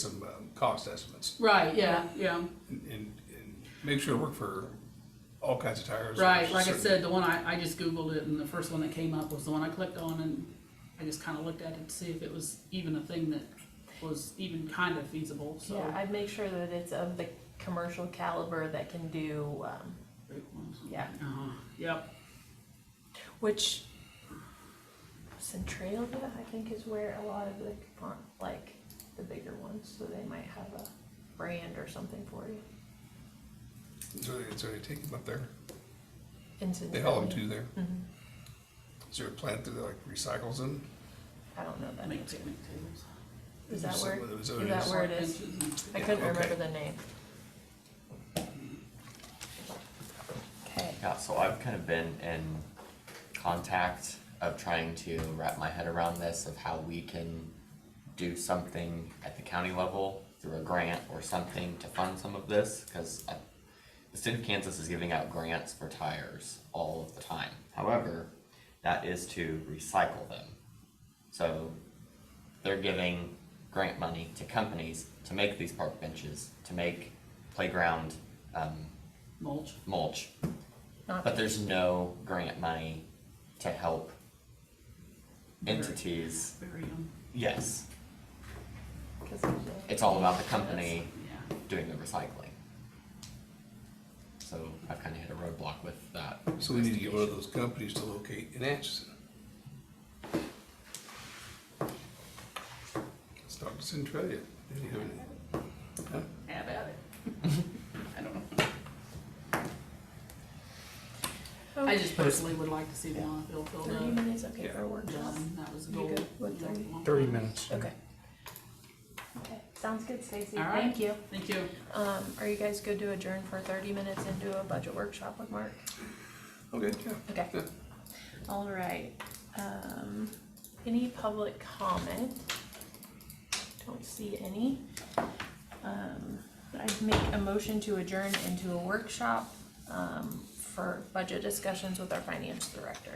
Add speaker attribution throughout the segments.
Speaker 1: some um, cost estimates
Speaker 2: Right, yeah, yeah,
Speaker 1: and, and and make sure it work for all kinds of tires.
Speaker 2: right, like I
Speaker 1: Certain-
Speaker 2: said, the one I, I just Googled it, and the first one that came up was the one I clicked on, and I just kinda looked at it to see if it was even a thing that was even kinda feasible, so.
Speaker 3: Yeah, I'd make sure that it's of the commercial caliber that can do, um, yeah,
Speaker 2: Uh-huh, Yep,
Speaker 3: which Centralia, I think, is where a lot of the, aren't like, the bigger ones, so they might have a brand or something for you.
Speaker 1: So they, so they take them up there,
Speaker 3: In Mm-hmm.
Speaker 1: they haul them
Speaker 3: Centralia.
Speaker 1: to there. Is there a plant that like recycles them?
Speaker 3: I don't know that
Speaker 2: make
Speaker 3: answer.
Speaker 2: picnic tables.
Speaker 3: Is that
Speaker 1: Is
Speaker 3: where,
Speaker 1: that-
Speaker 3: is
Speaker 1: is that what it
Speaker 3: that
Speaker 1: is?
Speaker 3: where it is?
Speaker 2: Benches and-
Speaker 3: I
Speaker 1: Yeah,
Speaker 3: couldn't
Speaker 1: okay.
Speaker 3: remember the name. Okay,
Speaker 4: Yeah, so I've kind of been in contact of trying to wrap my head around this of how we can do something at the county level through a grant or something to fund some of this, cause I, the state of Kansas is giving out grants for tires all of the time. However, that is to recycle them. So they're giving grant money to companies to make these park benches, to make playground, um,
Speaker 2: Mulch,
Speaker 4: mulch.
Speaker 3: Not-
Speaker 1: Uh,
Speaker 4: But there's no grant money to help entities.
Speaker 2: bury 'em.
Speaker 4: Yes,
Speaker 3: cause there's a-
Speaker 4: it's all about the company
Speaker 2: yeah,
Speaker 4: doing the recycling. So I've kind of hit a roadblock with that.
Speaker 1: So we need to get one of those companies to locate in Atchison. Let's talk to Centralia. Do you have any- huh?
Speaker 2: have at it. I don't know. I just personally would like to see the Monmouthville filled
Speaker 3: Thirty
Speaker 2: up,
Speaker 3: minutes, okay, for a workshop.
Speaker 2: done, that was a
Speaker 3: You
Speaker 2: goal.
Speaker 3: good with
Speaker 2: you know,
Speaker 3: 30?
Speaker 2: long
Speaker 5: Thirty
Speaker 2: time.
Speaker 5: minutes.
Speaker 3: Okay. Okay, sounds good, Stacy.
Speaker 2: All right.
Speaker 3: Thank you.
Speaker 2: Thank you.
Speaker 3: Um, are you guys good to adjourn for thirty minutes and do a budget workshop with Mark?
Speaker 1: Okay, yeah.
Speaker 3: Okay. All right, um, any public comment? Don't see any. Um, I'd make a motion to adjourn into a workshop, um, for budget discussions with our finance director.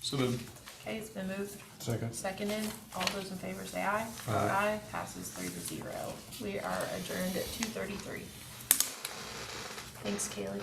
Speaker 1: So then,
Speaker 3: Okay, it's been moved,
Speaker 5: Second.
Speaker 3: seconded, all those in favor say aye.
Speaker 1: Aye.
Speaker 3: passes three to zero. We are adjourned at two thirty-three. Thanks, Kaylee.